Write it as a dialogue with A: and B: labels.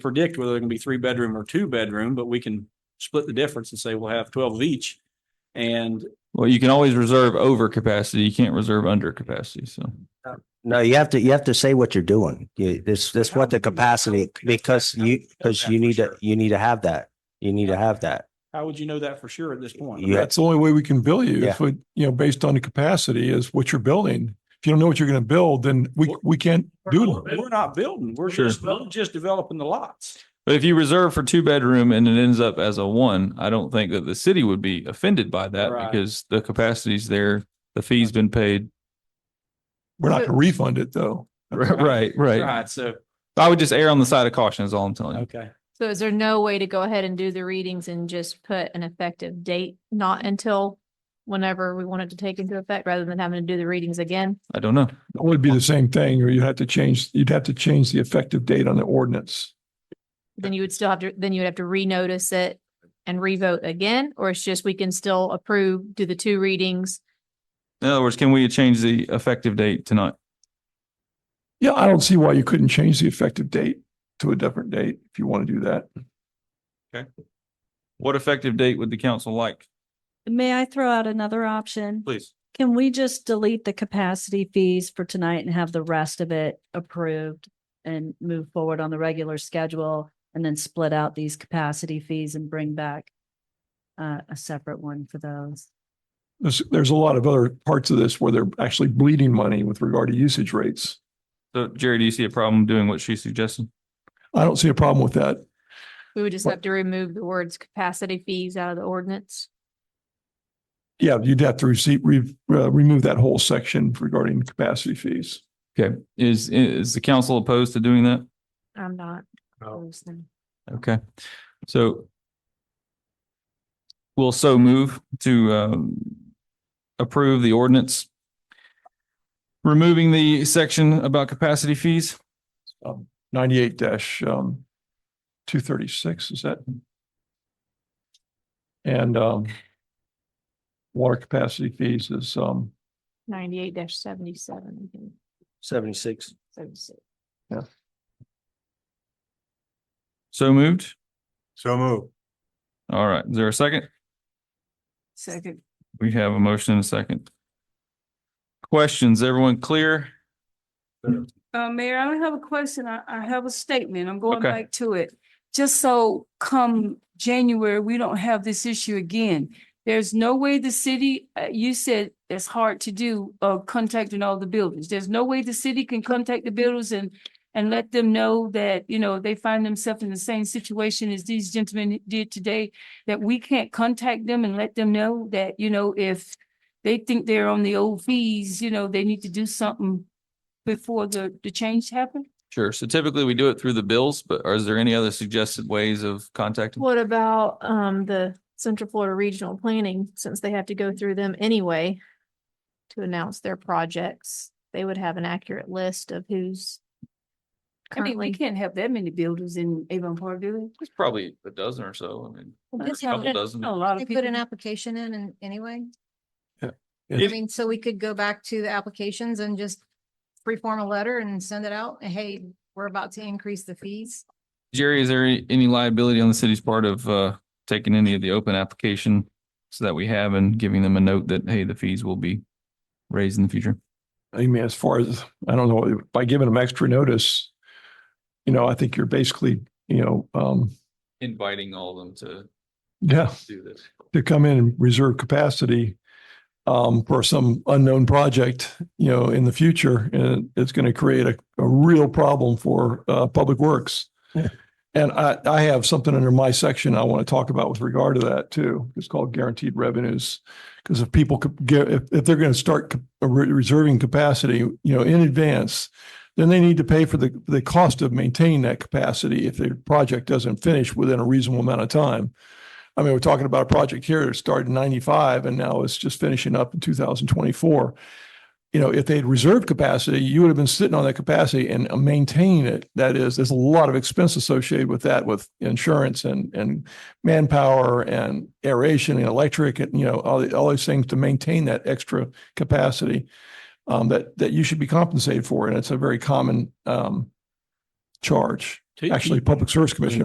A: predict whether they're gonna be three bedroom or two bedroom, but we can split the difference and say we'll have twelve of each. And
B: Well, you can always reserve over capacity. You can't reserve under capacity. So
C: No, you have to, you have to say what you're doing. You, this, this what the capacity, because you, because you need to, you need to have that. You need to have that.
A: how would you know that for sure at this point?
C: Yeah.
D: That's the only way we can bill you,
C: Yeah.
D: if, we- you know, based on the capacity is what you're building. If you don't know what you're going to build, then we, we can't do it.
A: We're not building, we're
B: Sure.
A: just, we're just developing the lots.
B: But if you reserve for two bedroom and it ends up as a one, I don't think that the city would be offended by that
A: Right.
B: because the capacity's there, the fee's been paid.
D: We're not going to refund it though.
B: Right, right.
A: Right, so,
B: I would just err on the side of caution is all I'm telling you.
A: okay.
E: So is there no way to go ahead and do the readings and just put an effective date, not until whenever we want it to take into effect, rather than having to do the readings again?
B: I don't know.
D: It would be the same thing, or you'd have to change, you'd have to change the effective date on the ordinance.
E: Then you would still have to, then you would have to renotice it and revote again, or it's just we can still approve, do the two readings?
B: In other words, can we change the effective date tonight?
D: Yeah, I don't see why you couldn't change the effective date to a different date if you want to do that.
B: What effective date would the council like?
F: May I throw out another option?
B: Please.
F: Can we just delete the capacity fees for tonight and have the rest of it approved and move forward on the regular schedule and then split out these capacity fees and bring back uh, a separate one for those?
D: There's, there's a lot of other parts of this where they're actually bleeding money with regard to usage rates.
B: So Jerry, do you see a problem doing what she suggested?
D: I don't see a problem with that.
E: We would just
D: What-
E: have to remove the words capacity fees out of the ordinance.
D: Yeah, you'd have to receive, re, uh, remove that whole section regarding capacity fees.
B: Okay, is, is the council opposed to doing that?
E: I'm not.
A: No.
E: opposed then.
B: Okay, so we'll so move to um, approve the ordinance removing the section about capacity fees.
D: Um, ninety-eight dash, um, two thirty-six, is that? And, um, water capacity fees is, um,
E: Ninety-eight dash seventy-seven, I think,
C: Seventy-six.
E: seventy-six.
B: So moved.
G: So move.
B: All right, is there a second?
E: Second.
B: We have a motion and a second. Questions, everyone clear?
H: Uh, Mayor, I don't have a question. I, I have a statement. I'm going
B: Okay.
H: back to it. Just so come January, we don't have this issue again. There's no way the city, uh, you said it's hard to do, uh, contacting all the buildings. There's no way the city can contact the builders and, and let them know that, you know, they find themselves in the same situation as these gentlemen did today, that we can't contact them and let them know that, you know, if they think they're on the old fees, you know, they need to do something before the, the change happened?
B: Sure, so typically we do it through the bills, but is there any other suggested ways of contacting?
E: What about um the Central Florida Regional Planning, since they have to go through them anyway? To announce their projects, they would have an accurate list of who's.
H: I mean, we
E: Currently,
H: can't have that many builders in Avon Park, do
B: There's probably a dozen or so, I mean,
I: Well,
B: a
I: that's how-
B: couple dozen.
H: we? A lot
I: They
H: of
I: put an
H: people.
I: application in and anyway.
D: Yeah.
I: I
D: If-
I: mean, so we could go back to the applications and just pre-form a letter and send it out. Hey, we're about to increase the fees.
B: Jerry, is there any- any liability on the city's part of uh taking any of the open application so that we have and giving them a note that, hey, the fees will be raised in the future?
D: I mean, as far as, I don't know, by giving them extra notice, you know, I think you're basically, you know, um,
B: Inviting all of them
D: yeah,
B: to do this.
D: to come in and reserve capacity um, for some unknown project, you know, in the future, and it's going to create a, a real problem for uh, Public Works.
C: Yeah.
D: And I, I have something under my section I want to talk about with regard to that too. It's called guaranteed revenues. Because if people could get, if, if they're going to start c- re- reserving capacity, you know, in advance, then they need to pay for the, the cost of maintaining that capacity if their project doesn't finish within a reasonable amount of time. I mean, we're talking about a project here that started in ninety-five and now it's just finishing up in two thousand twenty-four. You know, if they'd reserved capacity, you would have been sitting on that capacity and maintaining it. That is, there's a lot of expense associated with that, with insurance and, and manpower and aeration and electric and, you know, all, the- all these things to maintain that extra capacity um, that, that you should be compensated for. And it's a very common, um, charge.
A: Two.
D: actually Public Service Commission